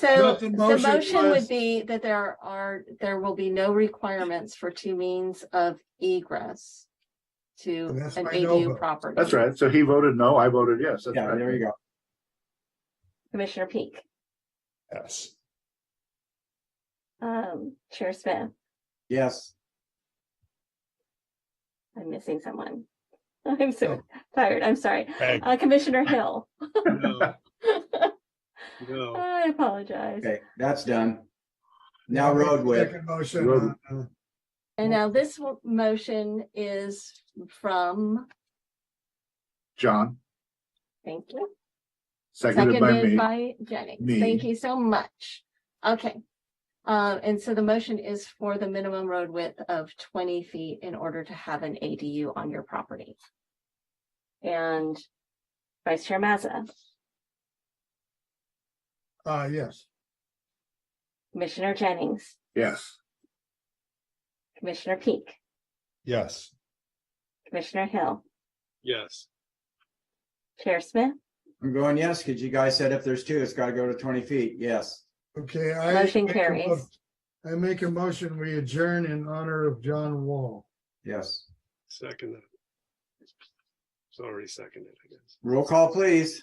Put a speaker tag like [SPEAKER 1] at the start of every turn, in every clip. [SPEAKER 1] So
[SPEAKER 2] But the
[SPEAKER 1] the
[SPEAKER 2] motion
[SPEAKER 1] motion
[SPEAKER 2] was-
[SPEAKER 1] would be that there are, there will be no requirements for two means of egress to
[SPEAKER 2] And that's
[SPEAKER 1] an
[SPEAKER 2] by no
[SPEAKER 1] ADU
[SPEAKER 2] vote.
[SPEAKER 1] property.
[SPEAKER 3] That's right. So he voted no, I voted yes. That's
[SPEAKER 4] Yeah,
[SPEAKER 3] right.
[SPEAKER 4] there you go.
[SPEAKER 5] Commissioner Peak,
[SPEAKER 4] Yes.
[SPEAKER 5] um, Chair Smith,
[SPEAKER 4] Yes.
[SPEAKER 5] I'm missing someone. I'm so
[SPEAKER 2] Oh.
[SPEAKER 5] tired, I'm sorry.
[SPEAKER 6] Peg.
[SPEAKER 5] Uh, Commissioner Hill,
[SPEAKER 6] No. No.
[SPEAKER 5] I apologize.
[SPEAKER 4] Okay, that's done. Now road width.
[SPEAKER 2] Second motion.
[SPEAKER 3] Road-
[SPEAKER 2] uh, uh,
[SPEAKER 1] And now this w- motion is from,
[SPEAKER 3] John,
[SPEAKER 5] Thank you.
[SPEAKER 3] seconded by
[SPEAKER 1] seconded
[SPEAKER 3] me.
[SPEAKER 1] by Jennings.
[SPEAKER 3] Me.
[SPEAKER 1] Thank you so much. Okay. Uh, and so the motion is for the minimum road width of twenty feet in order to have an ADU on your property.
[SPEAKER 5] And Vice Chair Mazza,
[SPEAKER 2] Uh, yes,
[SPEAKER 5] Commissioner Jennings,
[SPEAKER 3] Yes.
[SPEAKER 5] Commissioner Peak,
[SPEAKER 6] Yes.
[SPEAKER 5] Commissioner Hill,
[SPEAKER 6] Yes.
[SPEAKER 5] Chair Smith,
[SPEAKER 4] I'm going yes, because you guys said if there's two, it's got to go to twenty feet. Yes.
[SPEAKER 2] okay. I
[SPEAKER 5] Motion
[SPEAKER 2] make a
[SPEAKER 5] carries.
[SPEAKER 2] mo- I make a motion, we adjourn in honor of John Wall.
[SPEAKER 4] Yes.
[SPEAKER 6] Second. that. It's already seconded, I guess.
[SPEAKER 4] Roll call, please.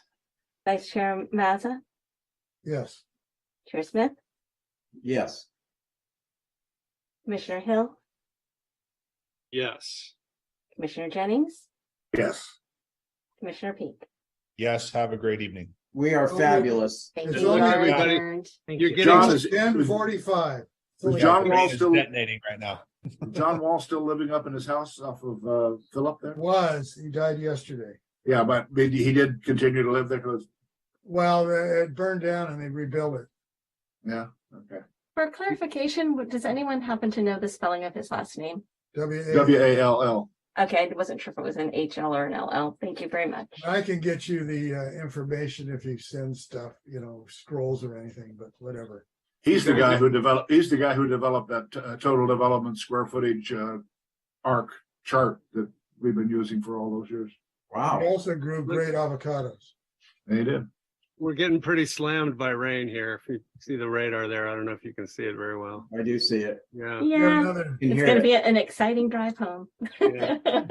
[SPEAKER 5] Vice Chair Mazza,
[SPEAKER 2] Yes.
[SPEAKER 5] Chair Smith,
[SPEAKER 4] Yes.
[SPEAKER 5] Commissioner Hill,
[SPEAKER 6] Yes.
[SPEAKER 5] Commissioner Jennings,
[SPEAKER 3] Yes.
[SPEAKER 5] Commissioner Peak.
[SPEAKER 7] Yes, have a great evening.
[SPEAKER 4] We are
[SPEAKER 2] Roll-
[SPEAKER 4] fabulous.
[SPEAKER 1] Thank
[SPEAKER 2] It's
[SPEAKER 1] you.
[SPEAKER 2] on
[SPEAKER 1] You are
[SPEAKER 2] everybody.
[SPEAKER 1] adjourned.
[SPEAKER 6] You're
[SPEAKER 3] John is,
[SPEAKER 2] Ten
[SPEAKER 3] is-
[SPEAKER 2] forty-five.
[SPEAKER 3] Is John
[SPEAKER 7] The
[SPEAKER 3] Wall
[SPEAKER 7] brain is
[SPEAKER 3] still-
[SPEAKER 7] Detonating right now.
[SPEAKER 3] John Wall still living up in his house off of, uh, Philip there?
[SPEAKER 2] Was, he died yesterday.
[SPEAKER 3] Yeah, but did- he did continue to live there because,
[SPEAKER 2] Well, it burned down and they rebuilt it.
[SPEAKER 3] yeah, okay.
[SPEAKER 1] For clarification, w- does anyone happen to know the spelling of his last name?
[SPEAKER 2] W,
[SPEAKER 3] W A L L.
[SPEAKER 5] Okay, I wasn't sure if it was an HL or an LL. Thank you very much.
[SPEAKER 2] I can get you the uh, information if you send stuff, you know, scrolls or anything, but whatever.
[SPEAKER 3] He's the guy who developed, he's the guy who developed that uh, total development square footage, uh, arc chart that we've been using for all those years.
[SPEAKER 2] He
[SPEAKER 4] Wow.
[SPEAKER 2] Also grew great avocados.
[SPEAKER 3] And he did.
[SPEAKER 6] We're getting pretty slammed by rain here. If you see the radar there, I don't know if you can see it very well.
[SPEAKER 4] I do see it.
[SPEAKER 6] Yeah.
[SPEAKER 2] Got
[SPEAKER 5] Yeah,
[SPEAKER 2] another-
[SPEAKER 4] Can
[SPEAKER 5] it's
[SPEAKER 4] hear
[SPEAKER 5] gonna
[SPEAKER 4] it.
[SPEAKER 5] be an exciting drive home.
[SPEAKER 6] Yeah.